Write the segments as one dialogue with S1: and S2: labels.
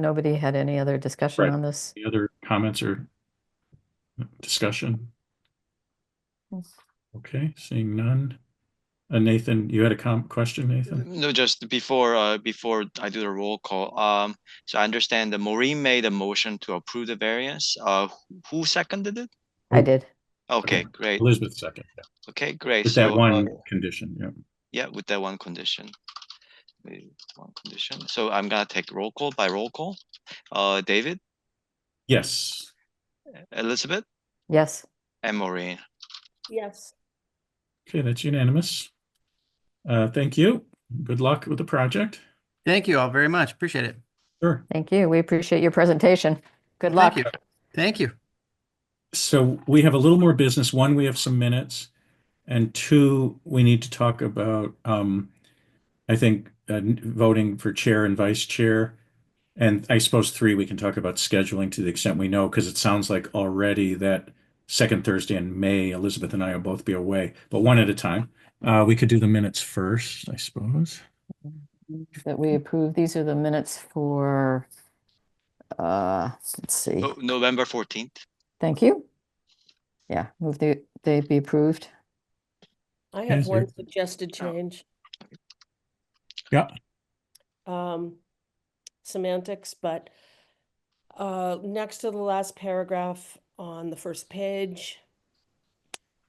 S1: Nobody had any other discussion
S2: Right.
S1: on this?
S2: Any other comments or discussion?
S1: Mm.
S2: Okay, seeing none. Uh, Nathan, you had a com, question, Nathan?
S3: No, just before, uh, before I do the roll call, um, so I understand that Maureen made a motion to approve the variance, uh, who seconded it?
S1: I did.
S3: Okay, great,
S2: Elizabeth second, yeah.
S3: okay, great.
S2: with that
S3: So, uh,
S2: one condition, yeah.
S3: Yeah, with that one condition. With One condition, so I'm gonna take roll call by roll call, uh, David,
S2: Yes,
S3: Elizabeth,
S1: Yes.
S3: and Maureen.
S4: Yes.
S2: okay, that's unanimous. Uh, thank you. Good luck with the project.
S5: Thank you all very much. Appreciate it.
S2: Sure.
S1: Thank you. We appreciate your presentation. Good luck.
S5: Thank you. Thank you.
S2: So we have a little more business. One, we have some minutes. And two, we need to talk about, um, I think, uh, n- voting for chair and vice chair. And I suppose three, we can talk about scheduling to the extent we know, because it sounds like already that second Thursday in May, Elizabeth and I will both be away, but one at a time. Uh, we could do the minutes first, I suppose.
S1: That we approve. These are the minutes for, uh, let's see.
S3: No- Oh, November fourteenth,
S1: Thank you. Yeah, move they, they be approved.
S4: I
S2: Yes,
S4: have one
S2: sir.
S4: suggested
S3: Oh.
S4: change.
S2: Yeah.
S4: Um, semantics, but uh, next to the last paragraph on the first page,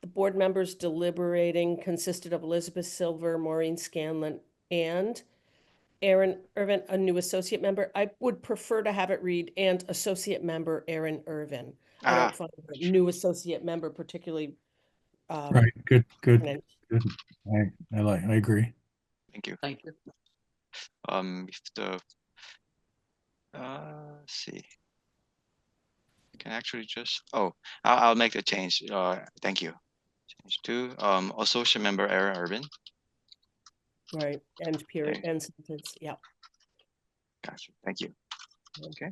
S4: the board members deliberating consisted of Elizabeth Silver, Maureen Scanlon, and Aaron Irvin, a new associate member. I would prefer to have it read and associate member Aaron Irvin. I
S3: ah,
S4: don't find the new associate member particularly um,
S2: Right, good, good.
S4: prominent.
S2: I, I like, I agree.
S3: thank you,
S5: Thank you.
S3: um, if the. Uh, let's see. I Can actually just, oh, I'll, I'll make the change, uh, thank you. Change to, um, associate member Aaron Irvin,
S4: Right, and period,
S3: Okay.
S4: and sentence, yeah.
S3: gotcha, thank you. Okay.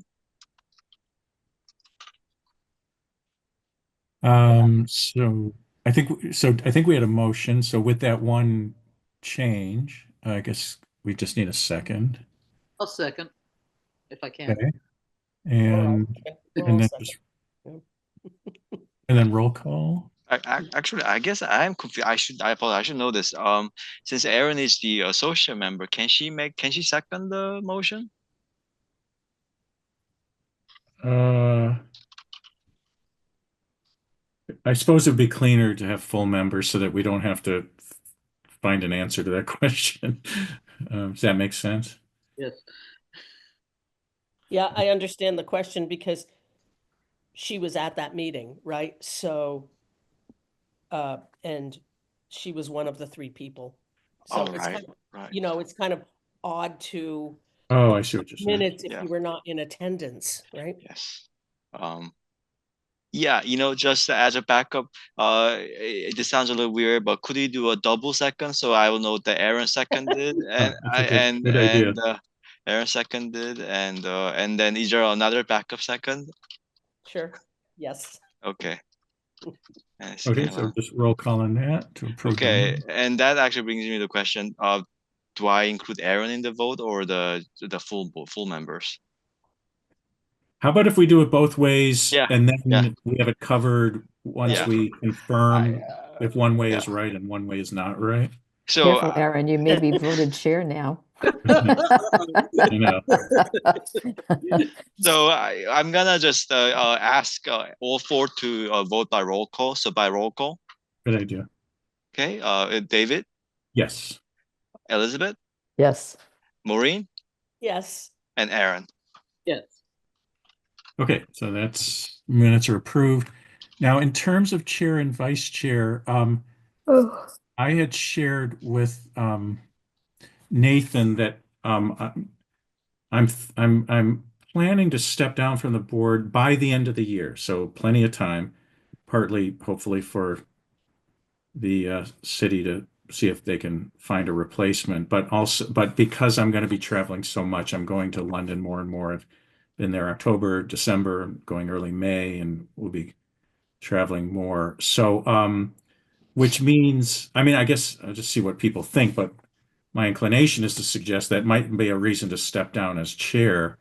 S2: Um, so I think, so I think we had a motion. So with that one change, I guess we just need a second.
S6: I'll second, if I can.
S2: Okay.
S4: All right,
S2: And,
S4: okay, we're all
S2: and then
S4: set.
S2: just. And then roll call.
S3: I, I, actually, I guess I am confused, I should, I apologize, I should know this, um, since Aaron is the associate member, can she make, can she second the motion?
S2: Uh. I suppose it'd be cleaner to have full members so that we don't have to find an answer to that question. Um, does that make sense?
S6: Yes,
S4: Yeah, I understand the question because she was at that meeting, right? So, uh, and she was one of the three people. So
S3: All
S4: it's
S3: right,
S4: kind of-
S3: right.
S4: You know, it's kind of odd to
S2: Oh, I see what you're saying.
S4: minutes if
S3: Yeah.
S4: you were not in attendance, right?
S3: Yes. Um, yeah, you know, just as a backup, uh, it, this sounds a little weird, but could you do a double second so I will know that Aaron seconded
S2: that's
S3: and
S2: a
S3: I
S2: good-
S3: and
S2: good idea.
S3: and uh, Aaron seconded and uh, and then is there another backup second?
S4: Sure, yes.
S3: Okay. And it's
S2: Okay,
S3: kinda
S2: so
S3: like-
S2: just roll call on that to approve. the
S3: okay,
S2: minutes.
S3: and that actually brings me to the question of, do I include Aaron in the vote or the the full bo- full members?
S2: How about if we do it both ways?
S3: Yeah,
S2: And
S3: yeah.
S2: then we have it covered once
S3: Yeah.
S2: we confirm
S3: I, uh,
S2: if one way
S3: yeah.
S2: is right and one way is not right.
S3: so
S1: Careful,
S3: uh,
S1: Aaron, you may be voted chair now.
S2: I know.
S3: So I, I'm gonna just uh, uh, ask uh, all four to uh, vote by roll call. So by roll call,
S2: Good idea.
S3: okay? Uh, David,
S2: Yes.
S3: Elizabeth,
S1: Yes.
S3: Maureen,
S4: Yes,
S3: and Aaron.
S6: yes.
S2: Okay, so that's minutes are approved. Now, in terms of chair and vice chair, um,
S1: Oh,
S2: I had shared with um Nathan that um I'm- I'm I'm I'm planning to step down from the board by the end of the year, so plenty of time, partly hopefully for the uh city to see if they can find a replacement, but also but because I'm going to be traveling so much, I'm going to London more and more. I've been there October, December, going early May, and we'll be traveling more. So um which means, I mean, I guess I'll just see what people think, but my inclination is to suggest that might be a reason to step down as chair